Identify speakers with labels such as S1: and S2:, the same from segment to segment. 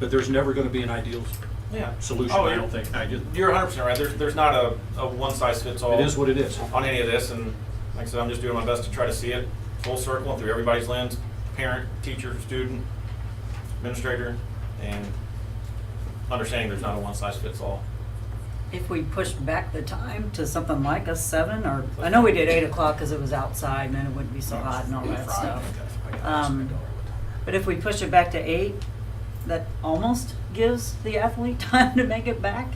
S1: But there's never gonna be an ideal
S2: Yeah.
S1: solution,
S2: Oh,
S1: I
S2: you're-
S1: don't think. I just,
S2: You're hundred percent right. There's, there's not a, a one size fits all.
S1: it is what it is.
S2: On any of this, and like I said, I'm just doing my best to try to see it full circle and through everybody's lens, parent, teacher, student, administrator, and understanding there's not a one size fits all.
S3: If we pushed back the time to something like a seven or, I know we did eight o'clock because it was outside and then it wouldn't be so hot and all that stuff. Um, But if we push it back to eight, that almost gives the athlete time to make it back.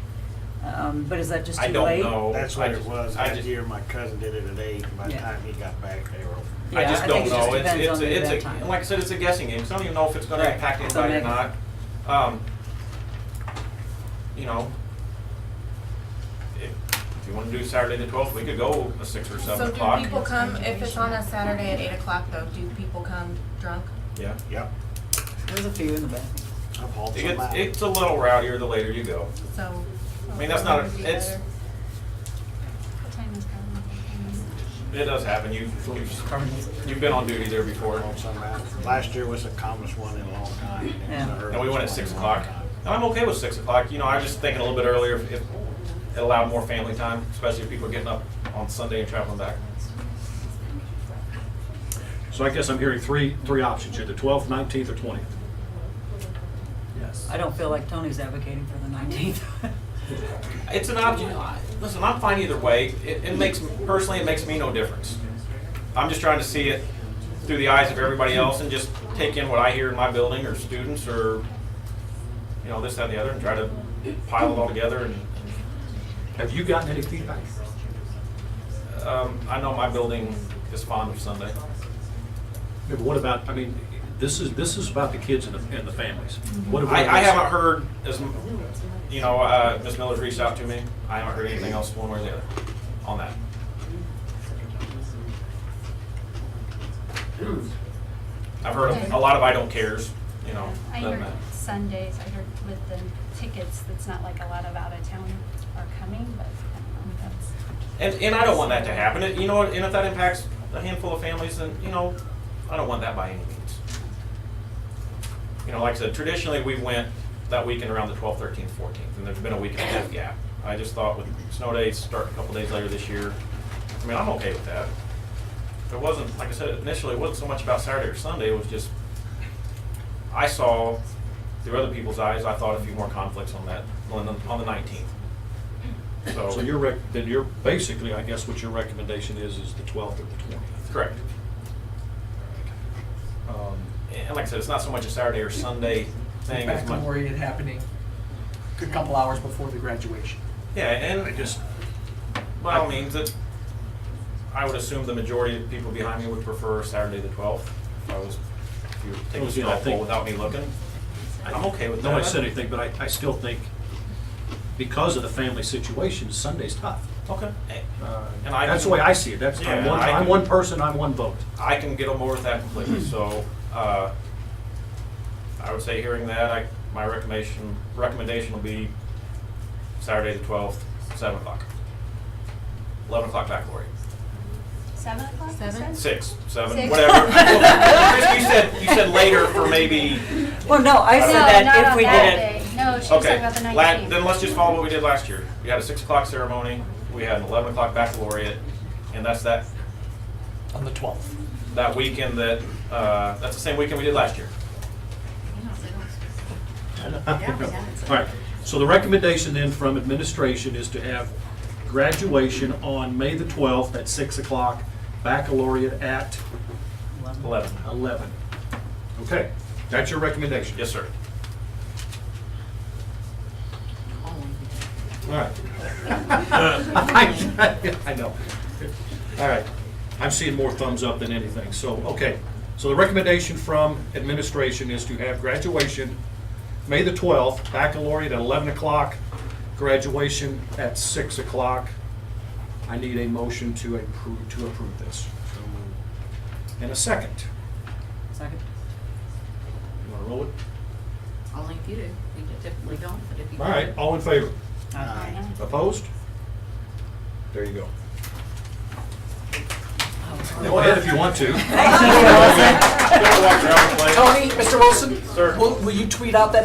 S3: Um, but is that just
S2: I
S3: too
S2: don't
S3: late?
S2: know.
S4: That's
S2: I
S4: what it
S2: just-
S4: was.
S2: I
S4: That
S2: just-
S4: year, my cousin did it at eight, and by the
S3: Yeah.
S4: time he got back, they were.
S2: I
S3: Yeah,
S2: just
S3: I
S2: don't
S3: think it just
S2: know. It's,
S3: depends
S2: it's,
S3: on the
S2: it's,
S3: event
S2: a-
S3: time.
S2: and like I said, it's a guessing game. So I don't even know if it's gonna
S3: Right.
S2: impact
S3: So
S2: anybody or not.
S3: maybe-
S2: Um, you know, if, if you wanna do Saturday the twelfth, we could go a six or seven
S5: So
S2: o'clock.
S5: do people come, if it's on a Saturday at eight o'clock though, do people come drunk?
S2: Yeah.
S4: Yep,
S3: There's a few in the back.
S4: I've hauled
S2: It
S4: some
S2: gets,
S4: out.
S2: it's a little rowdier the later you go.
S5: So.
S2: I mean, that's not a-
S5: Would be
S2: it's-
S5: better. What time is that?
S2: It does happen. You, you've, you've been on duty there before.
S4: Hauled some out. Last year was the calmest one in a long time. It was the
S3: Yeah.
S2: And
S3: And
S2: we
S4: earliest
S2: went
S4: one
S2: at six
S4: in a long
S2: o'clock.
S4: time.
S2: And I'm okay with six o'clock. You know, I was just thinking a little bit earlier if, if it allowed more family time, especially if people are getting up on Sunday and traveling back.
S1: So I guess I'm hearing three, three options here, the twelfth, nineteenth, or twentieth.
S2: Yes.
S3: I don't feel like Tony's advocating for the nineteenth.
S2: It's an option. Listen, I'm fine either way. It, it makes, personally, it makes me no difference. I'm just trying to see it through the eyes of everybody else and just take in what I hear in my building or students or, you know, this, that, and the other and try to pile it all together and,
S1: Have you gotten any feedback?
S2: um, I know my building is fond of Sunday.
S1: Yeah, but What about, I mean, this is, this is about the kids and the, and the families. What about
S2: I, I
S1: this?
S2: haven't heard as, m- you know, uh, Ms. Miller's reached out to me. I haven't heard anything else one way or the other on that. I've heard a- a lot of I don't cares, you know. uh,
S6: I
S2: doesn't
S6: heard
S2: matter.
S6: Sundays, I heard with the tickets, it's not like a lot of out of town are coming, but I don't know, that's,
S2: And, and I don't want that to happen. And, You know, and if that impacts a handful of families, then, you know, I don't want that by any means. You know, like I said, traditionally, we went that weekend around the twelfth, thirteenth, fourteenth, and there's been a week and a half gap. I just thought with snow days, start a couple days later this year, I mean, I'm okay with that. It wasn't, like I said, initially, it wasn't so much about Saturday or Sunday, it was just, I saw through other people's eyes, I thought a few more conflicts on that, on the, on the nineteenth.
S1: So your rec, then you're, basically, I guess what your recommendation is, is the twelfth or the twentieth.
S2: Correct. Um, And like I said, it's not so much a Saturday or Sunday thing as
S7: Back to
S2: much.
S7: worry it happening a couple hours before the graduation.
S2: Yeah,
S1: I
S2: and
S1: just,
S2: by all means, it, I would assume the majority of people behind me would prefer Saturday the twelfth. If I was, if you were taking
S1: Well, yeah,
S2: a
S1: I
S2: straw poll
S1: think-
S2: without me looking, I'm okay with that.
S1: no, I said anything, but I, I still think because of the family situation, Sunday's tough.
S2: Okay. Eh,
S1: Uh,
S2: And I
S1: That's the
S2: can-
S1: way I see it. That's, I'm
S2: Yeah,
S1: one,
S2: I
S1: I'm
S2: can-
S1: one person, I'm one vote.
S2: I can get on board with that completely, so, uh, I would say hearing that, I, my recommendation, recommendation will be Saturday the twelfth, seven o'clock. Eleven o'clock back, Lori.
S6: seven o'clock, you
S5: Seven?
S6: said?
S2: Six, seven,
S6: Six.
S2: whatever. Chris, you said, you said later for maybe,
S3: Well, no, I
S2: No,
S3: said
S6: not
S3: that if
S6: on
S3: we
S6: that
S3: did it.
S6: day. No, she was talking
S2: okay.
S6: about the nineteenth.
S2: la- Then let's just follow what we did last year. We had a six o'clock ceremony, we had an eleven o'clock baccalaureate, and that's that,
S7: On the twelfth.
S2: that weekend that, uh, that's the same weekend we did last year.
S1: All right, so the recommendation then from administration is to have graduation on May the 12th at 6 o'clock, baccalaureate at
S2: Eleven.
S1: 11. Okay, that's your recommendation?
S2: Yes, sir.
S1: All right. I I know. All right, I'm seeing more thumbs up than anything, so, okay. So the recommendation from administration is to have graduation May the 12th, baccalaureate at 11 o'clock, graduation at 6 o'clock. I need a motion to approve, to approve this. And a second.
S3: Second.
S1: You want to roll it?
S8: I'll link you to, we typically don't, but if you.
S1: All right, all in favor?
S3: Aye.
S6: Nine.
S1: Opposed? There you go. Go
S8: Oh.
S7: Go
S1: ahead
S7: ahead
S1: if you want to.
S3: Thank you, Allison.
S2: Walk around the place.
S7: Tony, Mr. Wilson?
S2: Sir.
S7: Will, will you tweet out that